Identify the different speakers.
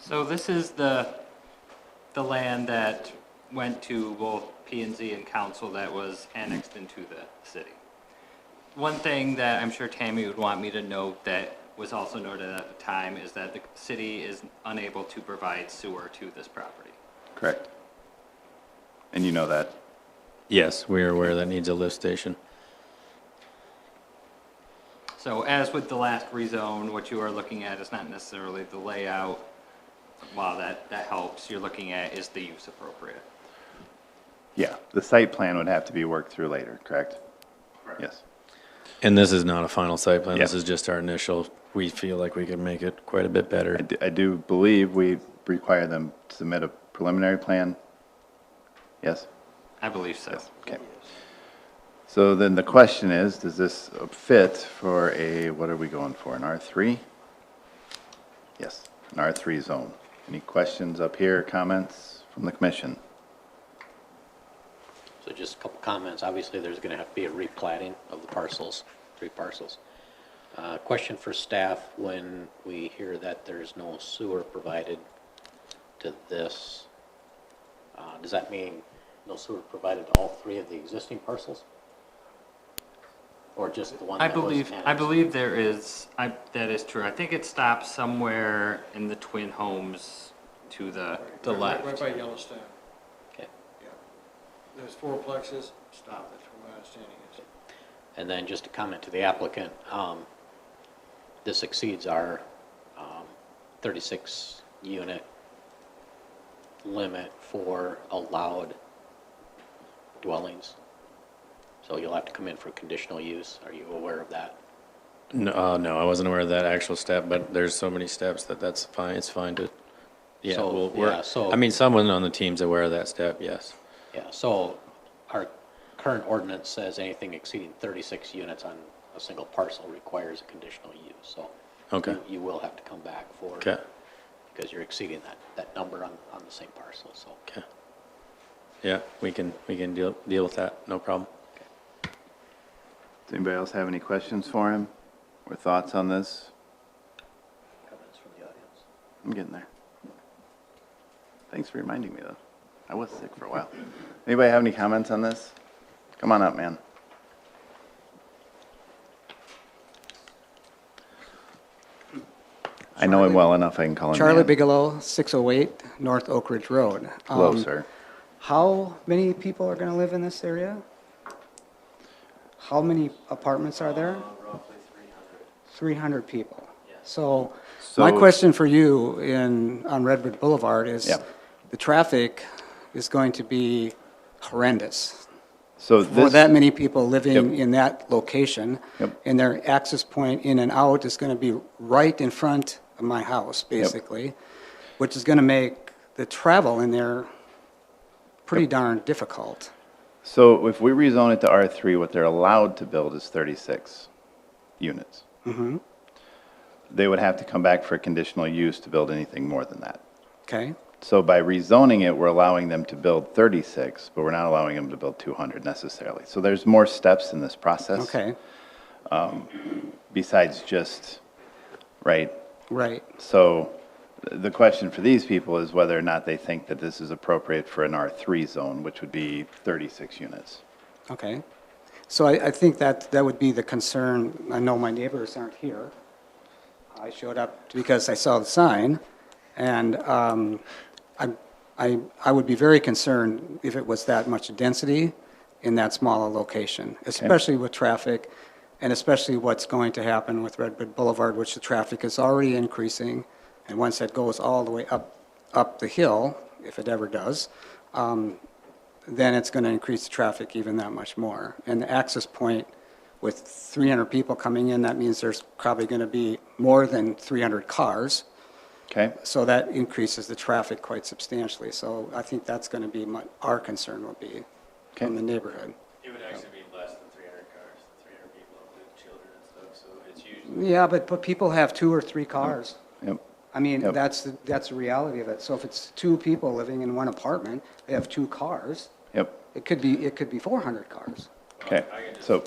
Speaker 1: So this is the, the land that went to both P and Z and council that was annexed into the city. One thing that I'm sure Tammy would want me to note that was also noted at the time is that the city is unable to provide sewer to this property.
Speaker 2: Correct. And you know that.
Speaker 3: Yes, we are aware that needs a lift station.
Speaker 1: So as with the last rezone, what you are looking at is not necessarily the layout. While that, that helps, you're looking at is the use appropriate.
Speaker 2: Yeah, the site plan would have to be worked through later, correct? Yes.
Speaker 3: And this is not a final site plan. This
Speaker 2: Yeah.
Speaker 3: is just our initial. We feel like we could make it quite a bit
Speaker 2: I
Speaker 3: better.
Speaker 2: do, I do believe we require them to submit a preliminary plan. Yes?
Speaker 1: I believe so.
Speaker 2: Okay. So then the question is, does this fit for a, what are we going for, an R3? Yes, an R3 zone. Any questions up here, comments from the commission?
Speaker 4: So just a couple comments. Obviously, there's going to have to be a replating of the parcels, three parcels. Uh, Question for staff, when we hear that there's no sewer provided to this, uh, does that mean no sewer provided to all three of the existing parcels? Or just the one
Speaker 1: I
Speaker 4: that was
Speaker 1: believe, I
Speaker 4: annexed?
Speaker 1: believe there is, I, that is true. I think it stops somewhere in the twin homes to the, the
Speaker 5: Right- right-
Speaker 1: left.
Speaker 5: Right by Yellowstone,
Speaker 4: Okay.
Speaker 5: yeah. There's four plexes, stop, that's what my understanding is.
Speaker 4: And then just a comment to the applicant, um, this exceeds our, um, thirty-six unit limit for allowed dwellings. So you'll have to come in for conditional use. Are you aware of that?
Speaker 3: No, uh, no, I wasn't aware of that actual step, but there's so many steps that that's fine. It's fine to. Yeah,
Speaker 4: So,
Speaker 3: we'll, we're,
Speaker 4: yeah, so-
Speaker 3: I mean, someone on the team's aware of that step. Yes.
Speaker 4: Yeah, so our current ordinance says anything exceeding thirty-six units on a single parcel requires a conditional use, so.
Speaker 3: Okay.
Speaker 4: you- You will have to come back for.
Speaker 3: Okay.
Speaker 4: Because you're exceeding that, that number on, on the same parcel, so.
Speaker 3: Okay. Yeah, we can we can deal deal with that. No problem.
Speaker 2: Does anybody else have any questions for him or thoughts on this?
Speaker 4: Comments from the audience?
Speaker 2: I'm getting there. Thanks for reminding me, though. I was sick for a while. Anybody have any comments on this? Come on up, man. I know him well enough, I can call him
Speaker 6: Charlie
Speaker 2: man.
Speaker 6: Bigelow, 608 North Oak Ridge Road.
Speaker 2: Hello,
Speaker 6: Um,
Speaker 2: sir.
Speaker 6: How many people are going to live in this area? How many apartments are there? Roughly 300. 300 people. So my
Speaker 2: So-
Speaker 6: question for you in, on Redwood Boulevard is,
Speaker 2: Yeah.
Speaker 6: the traffic is going to be horrendous
Speaker 2: So
Speaker 6: for
Speaker 2: this,
Speaker 6: that many people living
Speaker 2: Yep.
Speaker 6: in that location.
Speaker 2: Yep.
Speaker 6: And their access point in and out is going to be right in front of my house, basically, which is going to make the travel in there pretty darn difficult.
Speaker 2: so if we rezone it to R3, what they're allowed to build is 36 units.
Speaker 6: Mm-hmm.
Speaker 2: They would have to come back for a conditional use to build anything more than that.
Speaker 6: Okay?
Speaker 2: So by rezoning it, we're allowing them to build 36, but we're not allowing them to build 200 necessarily. So there's more steps in this process.
Speaker 6: Okay,
Speaker 2: Besides just, right?
Speaker 6: right.
Speaker 2: So th- the question for these people is whether or not they think that this is appropriate for an R3 zone, which would be 36 units.
Speaker 6: Okay. So I, I think that, that would be the concern. I know my neighbors aren't here. I showed up because I saw the sign, and um, I, I, I would be very concerned if it was that much density in that small a location, especially with traffic, and especially what's going to happen with Redwood Boulevard, which the traffic is already increasing, and once that goes all the way up, up the hill, if it ever does, um, then it's going to increase the traffic even that much more. And the access point with 300 people coming in, that means there's probably going to be more than 300 cars.
Speaker 2: Okay?
Speaker 6: So that increases the traffic quite substantially. So I think that's going to be my, our concern will be
Speaker 2: Okay.
Speaker 6: from the neighborhood.
Speaker 7: It would actually be less than three hundred cars, three hundred people, including children and stuff, so it's usually
Speaker 6: Yeah, but, but people have two or three cars.
Speaker 2: Yep.
Speaker 6: I mean,
Speaker 2: Yep.
Speaker 6: that's, the- that's the reality of it. So if it's two people living in one apartment, they have two cars,
Speaker 2: Yep.
Speaker 6: it could be, it could be 400 cars.
Speaker 2: Okay. So